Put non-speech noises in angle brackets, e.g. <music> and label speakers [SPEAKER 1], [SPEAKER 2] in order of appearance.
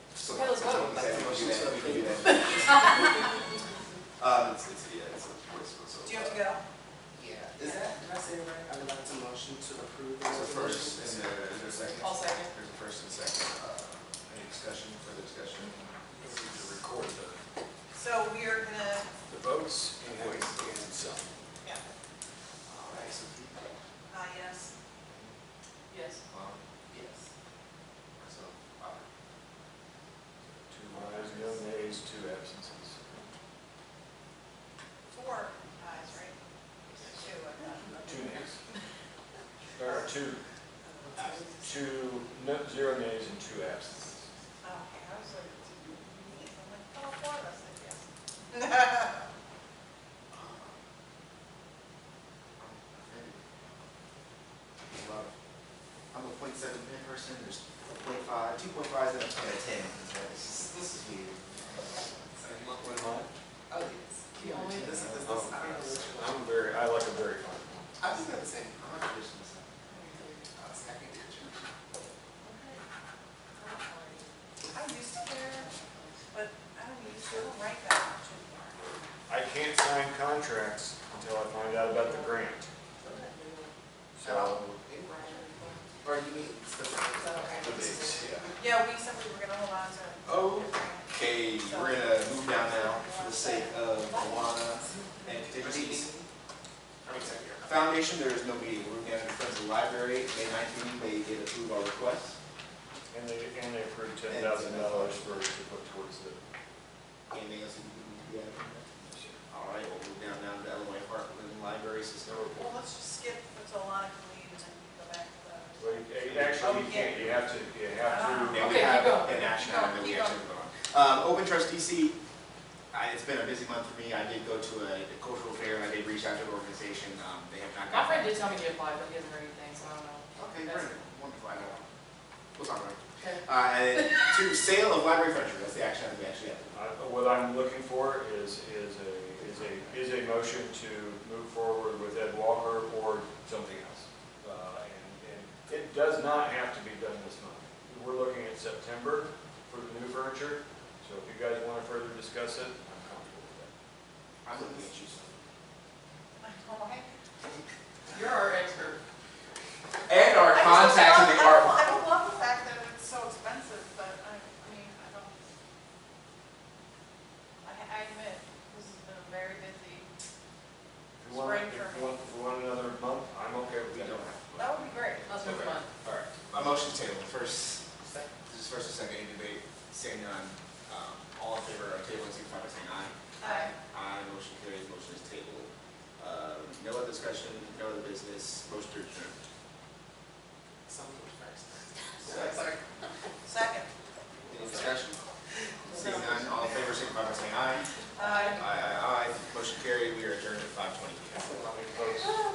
[SPEAKER 1] discussion. We need to record the,
[SPEAKER 2] So we are gonna,
[SPEAKER 1] the votes and voice and so.
[SPEAKER 2] yeah,
[SPEAKER 1] All right, so we-
[SPEAKER 2] uh, yes,
[SPEAKER 3] Yes.
[SPEAKER 1] um,
[SPEAKER 3] Yes.
[SPEAKER 1] so, uh, Two ayes, no nays, two absences.
[SPEAKER 2] four eyes, right? Two, I thought.
[SPEAKER 1] Two nays. Or two, two, no, zero nays and two absences.
[SPEAKER 2] Okay, I was like, two, me, I'm like, oh, four of us, I <laughs> guess.
[SPEAKER 4] Well, I'm a point seven pin person, there's a point five, two point five, then I'm point ten. It's like, This is, this is weird. Oh, yes. Keep on, this is, this is, this is- I don't know which one.
[SPEAKER 1] I'm very, I like a very fine one.
[SPEAKER 4] I'm just gonna say, I'm not traditional, so. I'll say I can do it.
[SPEAKER 2] I used to wear, but I don't use, I don't write that much anymore.
[SPEAKER 1] I can't sign contracts until I find out about the grant. So,
[SPEAKER 4] Or you mean, it's the-
[SPEAKER 1] the bids, yeah.
[SPEAKER 2] Yeah, we said we were gonna hold on to.
[SPEAKER 4] Okay, we're gonna move down now for the sake of Alana and Tiffany's. Foundation, there is no meeting, we're gonna friends of the library, May nineteenth, they did approve our request.
[SPEAKER 1] And they, and they approved ten thousand dollars for, to put towards the,
[SPEAKER 4] Anything else we can do? All right, we'll move down now to the Illinois Park Living Library System report.
[SPEAKER 2] Well, let's just skip until Lana can leave and then we go back to the.
[SPEAKER 1] well, you- actually, you can't, you have to, you have
[SPEAKER 4] And
[SPEAKER 1] to.
[SPEAKER 4] we
[SPEAKER 3] Okay,
[SPEAKER 4] have
[SPEAKER 3] keep going.
[SPEAKER 4] an action item that we
[SPEAKER 3] Keep
[SPEAKER 4] actually
[SPEAKER 3] going.
[SPEAKER 4] vote on. Um, Open Trust DC, I, it's been a busy month for me, I did go to a cultural fair, and I did reach out to the organization, um, they have not.
[SPEAKER 3] My
[SPEAKER 4] gotten
[SPEAKER 3] friend
[SPEAKER 4] back.
[SPEAKER 3] did tell me to apply, but he hasn't heard anything, so I don't know.
[SPEAKER 4] Okay,
[SPEAKER 3] That's-
[SPEAKER 4] wonderful, wonderful, I know. We'll talk about it. Uh, and then two, sale of library furniture, that's the action item we actually have.
[SPEAKER 1] I- What I'm looking for is, is a, is a, is a motion to move forward with Ed Walker or something else. Uh, And, and it does not have to be done this month. We're looking at September for the new furniture, so if you guys want to further discuss it, I'm comfortable with that.
[SPEAKER 4] I'm looking at you, so.
[SPEAKER 2] All right.
[SPEAKER 3] You're our expert.
[SPEAKER 4] And our
[SPEAKER 2] I just
[SPEAKER 4] contacts in
[SPEAKER 2] don't-
[SPEAKER 4] the
[SPEAKER 2] I
[SPEAKER 4] art
[SPEAKER 2] don't- I
[SPEAKER 4] market.
[SPEAKER 2] don't love the fact that it's so expensive, but I, I mean, I don't. I, I admit, this has been a very busy,
[SPEAKER 1] If you want,
[SPEAKER 2] Spring
[SPEAKER 1] if
[SPEAKER 2] for-
[SPEAKER 1] you want, if you want another month, I'm okay with
[SPEAKER 4] We
[SPEAKER 1] that.
[SPEAKER 4] don't have.
[SPEAKER 2] that would be great.
[SPEAKER 3] Let's move on.
[SPEAKER 4] All right, a motion table, first, this is first and second, any debate, saying none, um, all in favor of table, signify by saying aye.
[SPEAKER 2] Aye.
[SPEAKER 4] Aye, motion carries, motion is tabled. Um, no other discussion, no other business, motion to adjourn. Second.
[SPEAKER 2] Second.
[SPEAKER 4] Any discussion? Seeing none, all in favor, signify by saying aye.
[SPEAKER 2] Aye.
[SPEAKER 4] Aye, aye, aye. Motion carried. We are adjourned at five twenty P M.
[SPEAKER 1] Let me close.